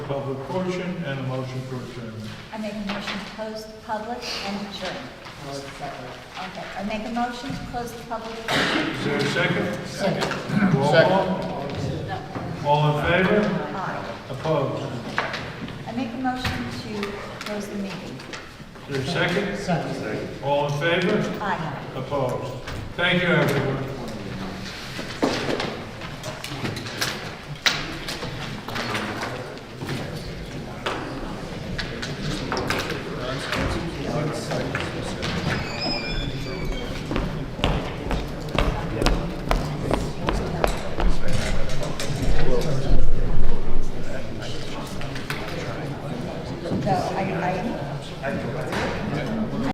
public portion and a motion for adjournment. I make a motion to close the public and adjourn. Okay, I make a motion to close the public. Is there a second? Second. Roll call. All in favor? Aye. Opposed? I make a motion to close the meeting. Is there a second? Second. All in favor? Aye. Opposed? Thank you, everyone.